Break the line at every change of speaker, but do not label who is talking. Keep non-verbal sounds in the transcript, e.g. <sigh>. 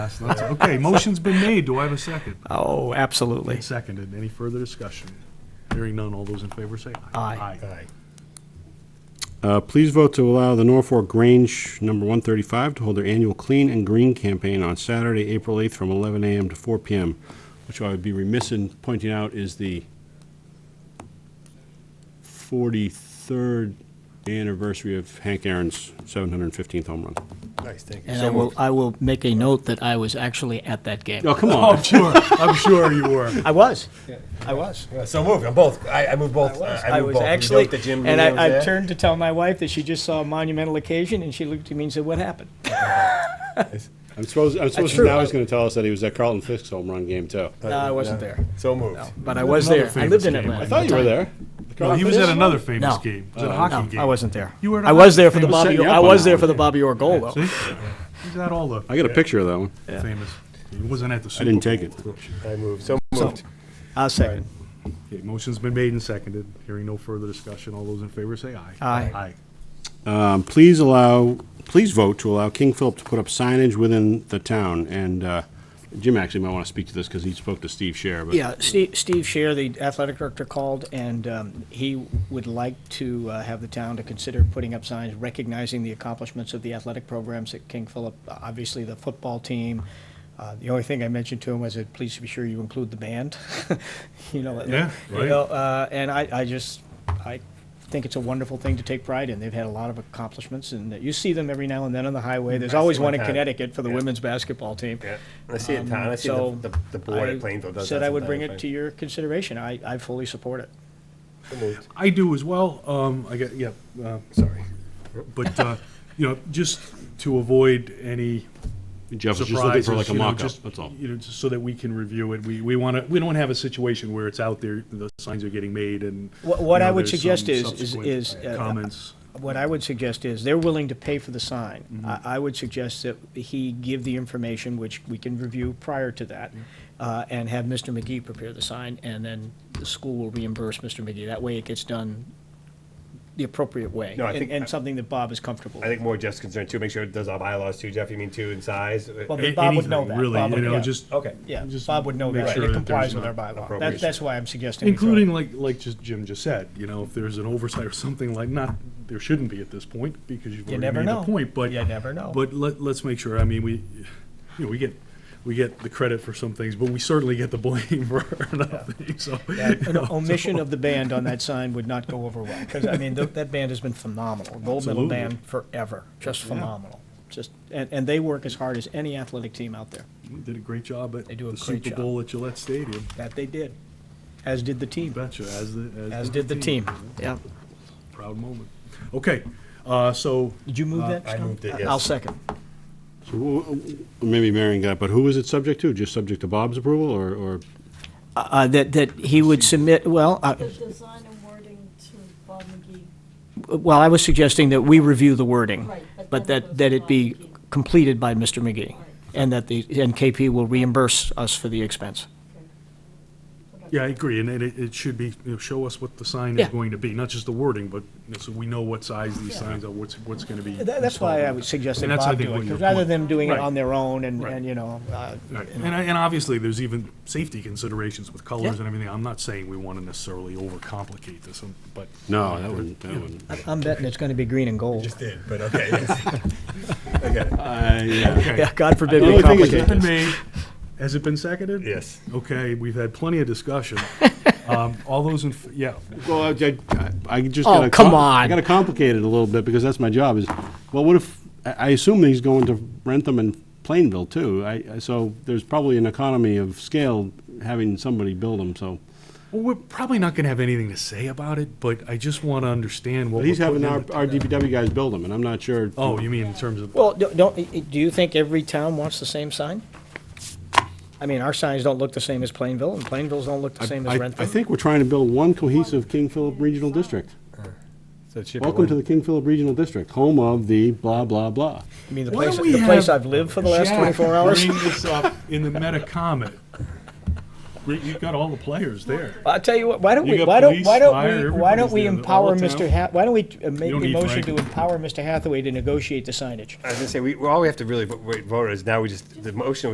That's- that's- Okay, motion's been made. Do I have a second?
Oh, absolutely.
Seconded. Any further discussion? Hearing none. All those in favor say aye.
Aye.
Aye.
Uh, Please vote to allow the Norfolk Grange Number 135 to hold their annual Clean and Green campaign on Saturday, April 8th, from 11 a.m. to 4 p.m., which I would be remiss in pointing out is the 43rd anniversary of Hank Aaron's 715th home run.
Nice, thank you.
And I will, I will make a note that I was actually at that game.
Oh, come
Oh,
on.
I'm sure. I'm sure you were.
I was. I was.
So moved, Oh, I'm both, I, I moved both.
I
moved
was
both. You
actually,
know the Jim
and
Neal was
I, I
there?
turned to tell my wife that she just saw a monumental occasion, and she looked at me and said, what happened?
I'm supposed, I'm supposed to,
true.
now he's going to tell us that he was at Carlton Fisk's home run game, too.
No, I wasn't there,
So moved.
but I was there. I lived
Another
in
famous
Atlanta.
I
at
thought
the
you were
time.
there.
No, he was at another famous
No. Uh,
game. It was at a
Oh,
hockey game.
No, I wasn't there.
You were at
I was there for
another
the
famous
Bobby,
set you
I
up on
was
that
there
one.
for the Bobby Orr goal, though.
See? He's at all the
I got a picture of that one.
famous. He wasn't at the
I
Super
didn't
Bowl.
take it.
I moved, so moved.
I'll second.
Okay, motion's been made and seconded. Hearing no further discussion. All those in favor say aye. Aye.
Aye.
Um, Please allow, please vote to allow King Philip to put up signage within the town. And uh, Jim actually might want to speak to this because he spoke to Steve Scher, but
Yeah, Steve, Steve Scher, the athletic director, called, and um, he would like to uh, have the town to consider putting up signs recognizing the accomplishments of the athletic programs at King Philip, obviously the football team. Uh, The only thing I mentioned to him was that please be sure you include the band, <laughs> you know.
Yeah,
you
right.
know, uh, And I, I just, I think it's a wonderful thing to take pride in. They've had a lot of accomplishments, and you see them every now and then on the highway. There's
Mm, I see
always
one
one in
time.
Connecticut for the
Yeah.
women's basketball team.
Yeah. I see it in
Um,
town, I see
so
the, the- the board
I
at Plainville does that.
Said I would bring it
sometimes,
to your consideration. I, I fully support it.
right? So moved.
I do as well. Um, I got, yeah, uh, sorry. But, uh, you know, just to avoid any
Jeff was just looking
surprises,
for like a
you know,
mock-up,
just,
that's all.
You know, just so that we can review it. We, we want to, we don't want to have a situation where it's out there, the signs are getting made and.
What- what
you know,
I would
there's
suggest
some
is- is-
subsequent
is, uh,
Comments.
What I would suggest is, they're willing to pay for the sign.
Mm-hmm.
I, I would suggest that he give the information, which we can review prior to that,
Mm-hmm.
uh, and have Mr. McGee prepare the sign, and then the school will reimburse Mr. McGee. That way it gets done the appropriate way.
No, I
and-
think-
And something that Bob is comfortable
I
with.
think more Jeff's concerned too, make sure it does our bylaws too, Jeff, you mean two in size?
Well,
A-
but Bob would know
anything,
that. Bob
Really, you
would-
know,
yeah.
just.
Okay.
Yeah,
just
Bob would know
make
that.
sure
It
there's
complies with
not
our bylaw. That,
appropriation.
that's why I'm suggesting. we throw it in.
Including like, like just Jim just said, you know, if there's an oversight or something like, not, there shouldn't be at this point, because you've
You
already
never
made the
know.
point, but.
You never know.
But let, let's make sure, I mean, we, you know, we get, we get the credit for some things, but we certainly get the blame <laughs> for another thing, so. you
An <laughs>
know,
omission of the band on that sign would not go over well, because, I mean, tho- that band has been phenomenal. Gold medal
Absolutely.
band forever, just phenomenal. Just, and, and they work as hard as any athletic team out there.
we Did a great job at
They do a
the
great
Super
job.
Bowl at Gillette Stadium,
That they did, as did the team,
betcha, as the,
as did the team. Yeah.
Proud moment. Okay, uh, so,
Did you move that?
Uh, I
Tom?
moved it, yes.
I'll second.
So, wh- wh- Maybe Marion got, it, but who is it subject to? Just subject to Bob's approval or, or
Uh, that, that he would submit, well, uh,
The design and wording to Bob McGee.
well, I was suggesting that we review the wording,
Right, but
but
then
that,
it goes
that
to
it be
Bob McGee.
completed by Mr. McGee, and that the, and KP will reimburse us for the expense.
yeah, I agree, and it, it should be, you know, show us what the sign is
Yeah.
going to be, not just the wording, but, you know, so we know what size these signs are, what's, what's gonna be.
That- That's why I would suggest that
And that's, I
Bob
think,
do it,
what your
because rather
point-
than doing it
Right.
on their own and,
Right.
and, you know, uh,
Right, and, I- and obviously, there's even safety considerations with colors
Yeah.
and everything. I'm not saying we want to necessarily overcomplicate this, um, but.
No, that wouldn't, that wouldn't.
I- I'm betting it's gonna be green and gold.
Just did, but
<laughs>
okay. yes. I got it.
I, Uh, yeah.
Okay.
<laughs> Yeah, God forbid
The
we
only thing is
Has it
complicate
been
this.
made? Has it been seconded?
Yes.
Okay, we've had plenty of discussion. Um, All those in, f- yeah,
Well, I, I- I just.
Oh,
gotta
come
com-
on.
I gotta complicate it a little bit because that's my job is, well, what if, I, I assume he's going to Rentham and Plainville too. I, I- so there's probably an economy of scale having somebody build them, so.
well, we're probably not going to have anything to say about it, but I just want to understand what
But
we're
he's having
putting
our,
in. the-
our DPW guys build them and I'm not sure.
Oh, you mean in terms of,
Well, do- don't, i- do you think every town wants the same sign? I mean, our signs don't look the same as Plainville, and Plainvilles don't look the same as
I, I
Rentham.
think we're trying to build one cohesive King Philip Regional District.
So it should be
Welcome to
one-
the King Philip Regional District, home of the blah, blah, blah.
I mean, the
Why
place,
don't we
the place
have
I've lived for the last
Jack,
twenty-four hours.
Bring this up in the meta comment. You've got all the players there.
I'll tell you what, why don't
You
we,
got
why don't,
police,
why don't we,
fire,
why don't we
everybody's there, all
empower
the
Mr.
town.
Ha, why don't we uh, make
don't
the
need
motion
Frank.
to empower Mr. Hathaway to negotiate the signage?
I was gonna say, we, all we have to really vo- vote is now we just, the motion